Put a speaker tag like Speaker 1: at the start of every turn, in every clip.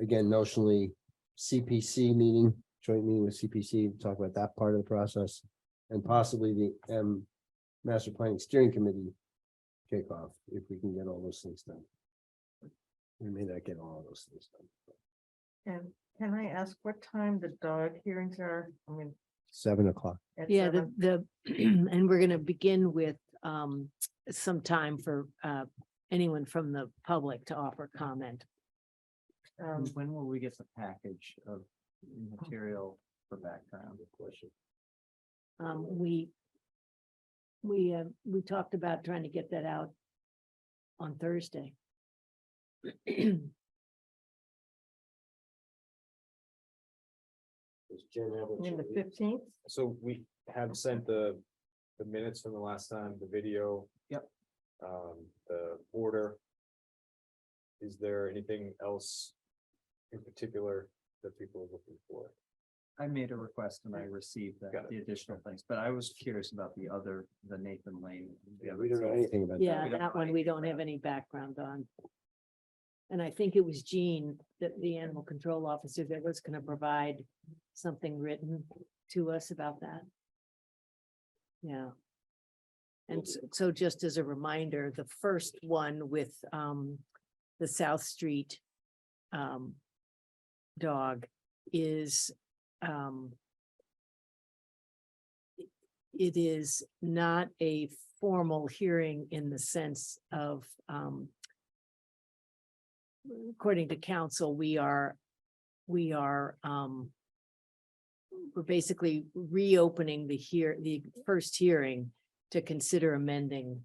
Speaker 1: again, notionally, CPC meeting, joint meeting with CPC, talk about that part of the process. And possibly the M Master Planning Steering Committee kickoff, if we can get all those things done. We may not get all those things done.
Speaker 2: And can I ask what time the dog hearings are? I mean.
Speaker 1: Seven o'clock.
Speaker 2: at
Speaker 3: Yeah, the,
Speaker 2: seven?
Speaker 3: the, and we're gonna begin with um some time for uh anyone from the public to offer comment.
Speaker 2: Um,
Speaker 4: When will we get the package of material for background? Question.
Speaker 3: Um, we we uh, we talked about trying to get that out on Thursday.
Speaker 1: Does Jen have
Speaker 2: I
Speaker 1: what
Speaker 2: mean, the
Speaker 1: you need?
Speaker 2: fifteenth,
Speaker 5: So we have sent the, the minutes from the last time, the video.
Speaker 4: Yep.
Speaker 5: Um, the order. Is there anything else in particular that people are looking for?
Speaker 4: I made a request and I received that,
Speaker 5: Got it.
Speaker 4: the additional things, but I was curious about the other, the Nathan Lane.
Speaker 1: Yeah, we don't know anything about. that.
Speaker 3: Yeah,
Speaker 4: we don't
Speaker 3: that
Speaker 4: know
Speaker 3: one we
Speaker 4: anything
Speaker 3: don't
Speaker 4: about.
Speaker 3: have any background on. And I think it was Jean, that the animal control officer that was gonna provide something written to us about that. Yeah. And s- so just as a reminder, the first one with um the South Street um dog is um it is not a formal hearing in the sense of, um, according to council, we are, we are, um, we're basically reopening the hear, the first hearing to consider amending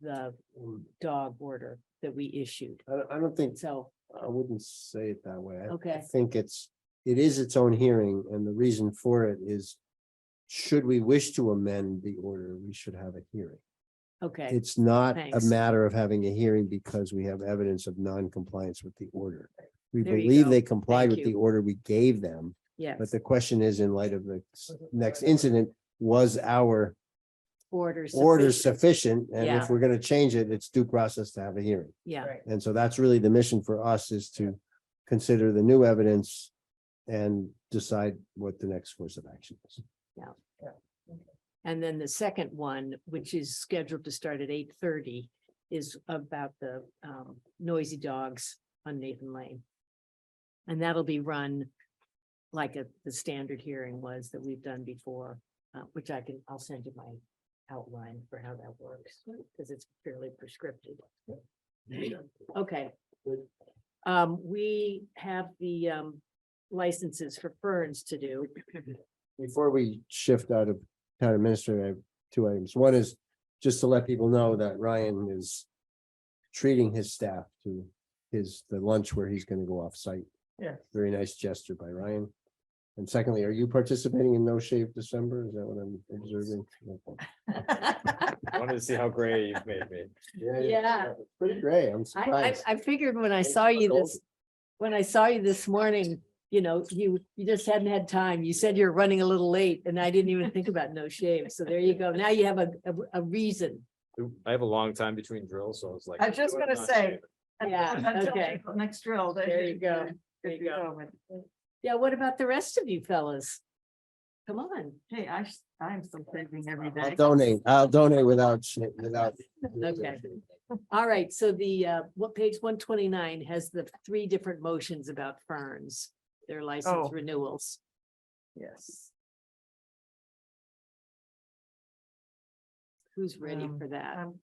Speaker 3: the
Speaker 1: Um,
Speaker 3: dog order that we issued.
Speaker 1: I don't, I don't think,
Speaker 3: So,
Speaker 1: I wouldn't say it that way. I- I
Speaker 3: Okay.
Speaker 1: think it's, it is its own hearing and the reason for it is. Should we wish to amend the order, we should have a hearing.
Speaker 3: okay,
Speaker 1: It's not a
Speaker 3: Thanks.
Speaker 1: matter of having a hearing because we have evidence of non-compliance with the order. We
Speaker 3: There you
Speaker 1: believe
Speaker 3: go.
Speaker 1: they complied
Speaker 3: Thank
Speaker 1: with the
Speaker 3: you.
Speaker 1: order we gave them,
Speaker 3: yes,
Speaker 1: but the question is, in light of the s- next incident, was our
Speaker 3: order.
Speaker 1: order
Speaker 3: sufficient.
Speaker 1: sufficient? And
Speaker 3: Yeah.
Speaker 1: if we're gonna change it, it's due process to have a hearing.
Speaker 3: Yeah,
Speaker 2: right,
Speaker 1: And so that's really the mission for us is to consider the new evidence and decide what the next course of action is.
Speaker 3: And then the second one, which is scheduled to start at eight thirty, is about the um noisy dogs on Nathan Lane. And that'll be run like a, the standard hearing was that we've done before, uh, which I can, I'll send you my outline for how that works, because it's fairly prescriptive. Okay. Um, we have the um licenses for ferns to do.
Speaker 1: before we shift out of town administrator, I have two items. One is just to let people know that Ryan is treating his staff to his, the lunch where he's gonna go off site.
Speaker 2: yeah.
Speaker 1: Very nice gesture by Ryan. And secondly, are you participating in No Shave December? Is that what I'm observing?
Speaker 5: I wanted to see how gray you've made me.
Speaker 3: Yeah.
Speaker 1: Pretty great. I'm
Speaker 3: I, I,
Speaker 1: surprised.
Speaker 3: I figured when I
Speaker 1: Thanks
Speaker 3: saw
Speaker 1: for
Speaker 3: you
Speaker 1: going.
Speaker 3: this, when I saw you this morning, you know, you, you just hadn't had time. You said you're running a little late and I didn't even think about no shave. So there you go. Now you have a, a- a reason.
Speaker 5: I have a long time between drills, so I was like.
Speaker 2: I was just
Speaker 5: "Do it,
Speaker 2: gonna
Speaker 5: not
Speaker 2: say,
Speaker 5: shave it."
Speaker 3: Yeah,
Speaker 2: Until
Speaker 3: okay.
Speaker 2: Next drill. then
Speaker 3: There you go.
Speaker 2: good
Speaker 3: There
Speaker 2: to
Speaker 3: you go.
Speaker 2: but,
Speaker 3: Yeah, what about the rest of you fellas? Come on.
Speaker 2: Hey, I, s- I'm still saving every
Speaker 1: I'll
Speaker 2: day.
Speaker 1: donate. I'll donate without, sh- without.
Speaker 3: Okay. All right. So the, uh, what page one twenty-nine has the three different motions about ferns, their license
Speaker 2: Oh.
Speaker 3: renewals.
Speaker 2: Yes.
Speaker 3: Who's ready
Speaker 2: Um,
Speaker 3: for that?
Speaker 2: Um,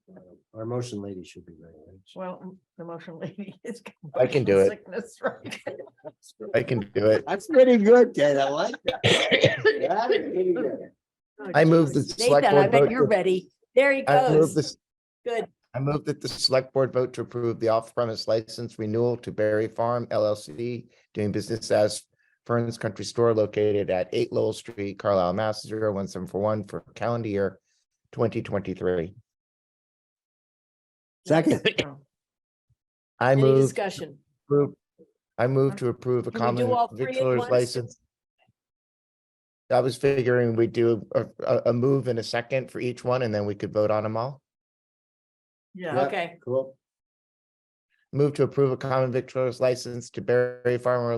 Speaker 1: Our motion lady should be ready.
Speaker 2: well, m- the motion lady is.
Speaker 6: I can do it.
Speaker 2: Sickness, right?
Speaker 6: I can do it.
Speaker 1: That's pretty good, Ted. I like that. That's pretty good.
Speaker 3: Oh,
Speaker 6: I move
Speaker 3: geez.
Speaker 6: the select
Speaker 3: Nathan, I
Speaker 6: board
Speaker 3: bet
Speaker 6: vote
Speaker 3: you're
Speaker 6: to-
Speaker 3: ready. There he
Speaker 6: I move
Speaker 3: goes.
Speaker 6: this,
Speaker 3: Good.
Speaker 6: I move that the select board vote to approve the off-premise license renewal to Berry Farm LLC doing business as Fern's Country Store located at eight Lowell Street, Carlisle, Mass. 01741 for calendar year twenty twenty-three.
Speaker 1: Second.
Speaker 2: Oh,
Speaker 6: I
Speaker 3: Any
Speaker 6: move,
Speaker 3: discussion?
Speaker 6: approve- I move to approve a
Speaker 3: Can we do
Speaker 6: common
Speaker 3: all three at
Speaker 6: victualer's
Speaker 3: once?
Speaker 6: license. I was figuring we'd do a, a, a move in a second for each one and then we could vote on them all.
Speaker 2: Yeah,
Speaker 1: Yeah.
Speaker 3: Okay,
Speaker 1: Cool.
Speaker 6: Move to approve a common victualer's license to Berry Farmer